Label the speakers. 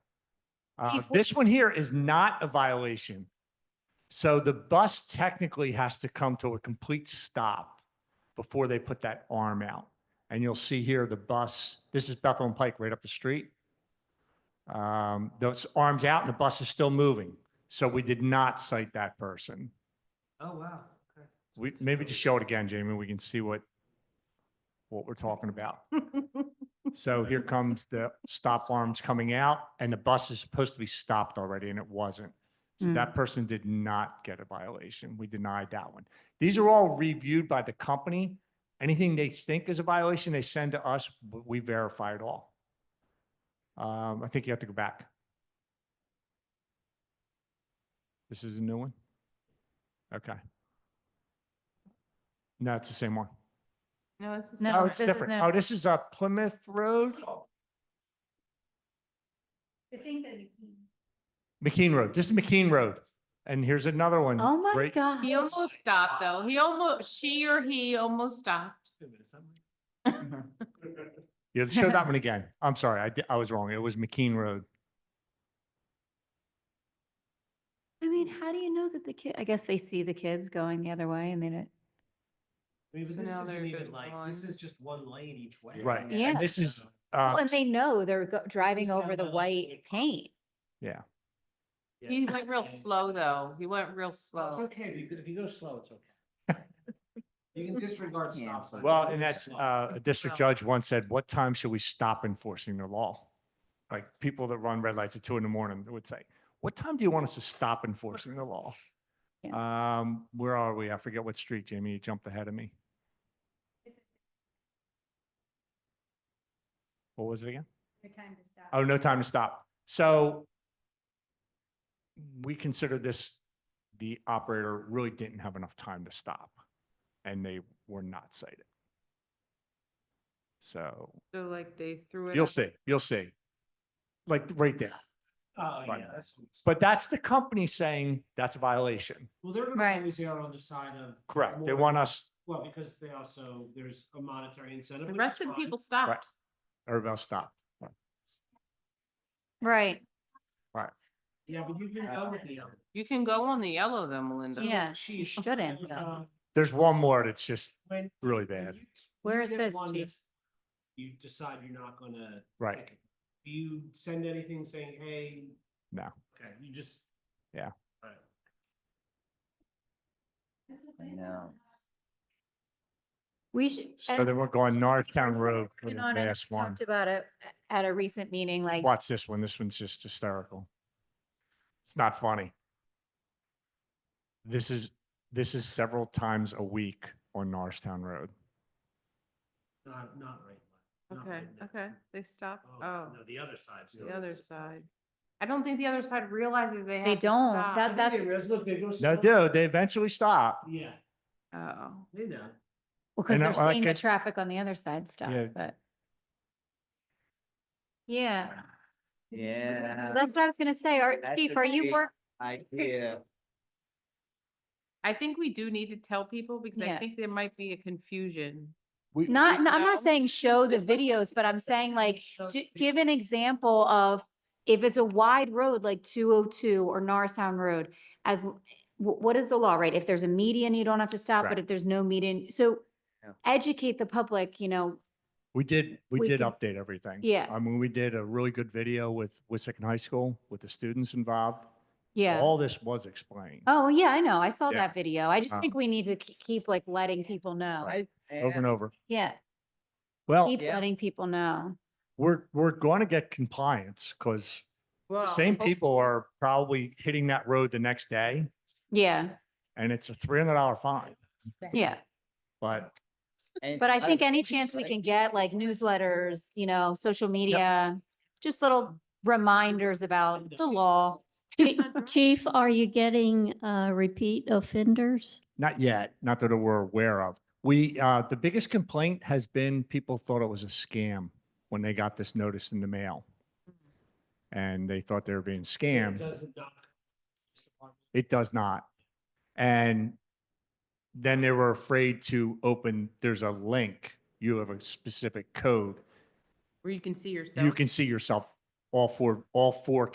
Speaker 1: Uh,
Speaker 2: Before-
Speaker 1: This one here is not a violation. So the bus technically has to come to a complete stop before they put that arm out. And you'll see here, the bus, this is Bethel and Pike right up the street. Um, Those arms out and the bus is still moving. So we did not cite that person.
Speaker 3: Oh, wow. Okay.
Speaker 1: We, maybe just show it again, Jamie, we can see what, what we're talking about. So here comes the stop arms coming out and the bus is supposed to be stopped already and it wasn't. So
Speaker 2: Hmm.
Speaker 1: that person did not get a violation. We denied that one. These are all reviewed by the company. Anything they think is a violation, they send to us, but we verify it all. Um, I think you have to go back. This is a new one? Okay. No, it's the same one.
Speaker 2: No, this is.
Speaker 1: Oh, it's different. Oh, this is uh, Plymouth Road?
Speaker 4: The thing that.
Speaker 1: McKean Road, this is McKean Road. And here's another one.
Speaker 4: Oh my
Speaker 1: right-
Speaker 4: God.
Speaker 2: He almost stopped though. He almost, she or he almost stopped.
Speaker 3: Wait a minute, somebody-
Speaker 1: Yeah, show that one again. I'm sorry, I, di- I was wrong. It was McKean Road.
Speaker 4: I mean, how do you know that the kid, I guess they see the kids going the other way and they don't.
Speaker 3: I mean, but
Speaker 2: So
Speaker 3: this
Speaker 2: now
Speaker 3: isn't
Speaker 2: they're
Speaker 3: even
Speaker 2: good
Speaker 3: like, this
Speaker 2: lines.
Speaker 3: is just one lane each way.
Speaker 1: Right.
Speaker 3: and
Speaker 4: Yeah.
Speaker 1: This is,
Speaker 4: Well,
Speaker 1: uh,
Speaker 4: Oh, And they know they're go- driving
Speaker 3: Please
Speaker 4: over
Speaker 3: have
Speaker 4: the
Speaker 3: a-
Speaker 4: white paint.
Speaker 3: yeah.
Speaker 2: He went real
Speaker 3: And-
Speaker 2: slow though. He went real
Speaker 3: Well,
Speaker 2: slow.
Speaker 3: It's okay, if you, go- if you go slow, it's okay. You can disregard
Speaker 4: Yeah.
Speaker 3: stop signs. Oh,
Speaker 1: well,
Speaker 3: you can
Speaker 1: and
Speaker 3: go
Speaker 1: that's,
Speaker 3: slow.
Speaker 1: uh, a district judge once said, what time should we stop enforcing the law? Like people that run red lights at two in the morning would say, what time do you want us to stop enforcing the law? Um, where are we? I forget what street, Jamie, you jumped ahead of me. What was it again? Oh, no time to stop. So we consider this, the operator really didn't have enough time to stop and they were not cited. So
Speaker 2: So like they threw it.
Speaker 1: you'll
Speaker 2: up.
Speaker 1: see, you'll see. Like right there.
Speaker 3: Oh,
Speaker 1: Right.
Speaker 3: yeah, that's.
Speaker 1: But that's the company saying that's a violation.
Speaker 3: Well, they're gonna
Speaker 4: Right.
Speaker 3: always err on the side of.
Speaker 1: Correct. They
Speaker 3: more-
Speaker 1: want us,
Speaker 3: Well, because they also, there's a monetary incentive.
Speaker 2: The
Speaker 3: which
Speaker 2: rest
Speaker 3: is
Speaker 2: of the
Speaker 3: fine.
Speaker 2: people stopped.
Speaker 1: everybody stop. Oh,
Speaker 4: Right.
Speaker 3: Yeah, but you can go with the other.
Speaker 2: You can go on the yellow then, Melinda.
Speaker 4: Yeah,
Speaker 3: She-
Speaker 4: you shouldn't,
Speaker 3: there's,
Speaker 4: though.
Speaker 3: uh,
Speaker 1: There's one more that's just
Speaker 3: When.
Speaker 1: really
Speaker 3: when
Speaker 1: bad.
Speaker 3: you-
Speaker 4: Where
Speaker 3: you
Speaker 4: is
Speaker 3: get
Speaker 4: this,
Speaker 3: one
Speaker 4: Chief?
Speaker 3: that's- You decide you're not gonna.
Speaker 1: Right.
Speaker 3: pick it. Do you send anything saying, hey?
Speaker 1: No.
Speaker 3: Okay, you just.
Speaker 1: Yeah.
Speaker 3: Alright.
Speaker 4: No. We should.
Speaker 1: So
Speaker 4: and-
Speaker 1: then we're going Norristown Road for
Speaker 4: You
Speaker 1: the
Speaker 4: know, and I know
Speaker 1: last
Speaker 4: we
Speaker 1: one.
Speaker 4: talked about it at a recent meeting, like,
Speaker 1: Watch this one. This one's just hysterical. It's not funny. This is, this is several times a week on Norristown Road.
Speaker 3: Not, not right. not
Speaker 2: Okay,
Speaker 3: right now.
Speaker 2: okay. They stopped. Oh,
Speaker 3: Oh, No, the other side's.
Speaker 2: the other side. I don't think the other side realizes they have.
Speaker 4: they
Speaker 2: to
Speaker 4: don't,
Speaker 2: stop.
Speaker 4: that, Uh, that's,
Speaker 3: Look, they go.
Speaker 1: No,
Speaker 3: slow.
Speaker 1: dude, they eventually stop.
Speaker 3: Yeah,
Speaker 2: Oh,
Speaker 3: they know.
Speaker 4: because
Speaker 1: And I-
Speaker 4: they're seeing the
Speaker 1: like it-
Speaker 4: traffic on the other side stop,
Speaker 1: Yeah.
Speaker 4: but. Yeah,
Speaker 5: Yeah,
Speaker 4: that's what I was gonna say. Are,
Speaker 5: That
Speaker 4: Chief,
Speaker 5: should
Speaker 4: are you
Speaker 5: be-
Speaker 4: work,
Speaker 5: idea.
Speaker 2: I think we do need to tell people because I
Speaker 4: Yeah.
Speaker 2: think there might be a confusion.
Speaker 1: We-
Speaker 4: Not,
Speaker 2: you
Speaker 4: no, I'm not
Speaker 2: know?
Speaker 4: saying show the videos, but I'm saying like,
Speaker 3: Show
Speaker 4: ju-
Speaker 3: the
Speaker 4: give an example of if it's a wide road like two oh two or Narsown Road, as, l- wh- what is the law, right? If there's a median, you don't have to stop, but
Speaker 1: Correct.
Speaker 4: if there's no median, so
Speaker 5: Yeah.
Speaker 4: educate the public, you know,
Speaker 1: We did, we
Speaker 4: We
Speaker 1: did
Speaker 4: can-
Speaker 1: update everything.
Speaker 4: Yeah.
Speaker 1: I mean, we did a really good video with Wissahickon High School with the students involved.
Speaker 4: yeah.
Speaker 1: All this was explained
Speaker 4: Oh, yeah, I know. I saw
Speaker 1: Yeah.
Speaker 4: that video. I just
Speaker 1: Uh,
Speaker 4: think we need to ke- keep like letting people know.
Speaker 5: I,
Speaker 1: over and
Speaker 5: and
Speaker 1: over.
Speaker 4: Yeah,
Speaker 1: Well,
Speaker 4: keep
Speaker 5: Yeah.
Speaker 4: letting people know.
Speaker 1: we're, we're going to get compliance because the
Speaker 2: Well,
Speaker 1: same
Speaker 2: hopefully-
Speaker 1: people are probably hitting that road the next day
Speaker 4: Yeah,
Speaker 1: and it's a $300 fine,
Speaker 4: yeah.
Speaker 1: but
Speaker 4: But I think
Speaker 5: I
Speaker 4: any
Speaker 5: think
Speaker 4: chance we
Speaker 5: like-
Speaker 4: can get, like newsletters, you know, social media, just little reminders about the law.
Speaker 6: Chi- Chief, are you getting uh, repeat offenders?
Speaker 1: Not yet, not that we're aware of. We, uh, the biggest complaint has been people thought it was a scam when they got this notice in the mail. And they thought they were being
Speaker 3: It
Speaker 1: scammed.
Speaker 3: doesn't knock.
Speaker 1: It does not. And then they were afraid to open, there's a link, you have a specific code.
Speaker 2: Where you can see yourself.
Speaker 1: You can see yourself, all four, all four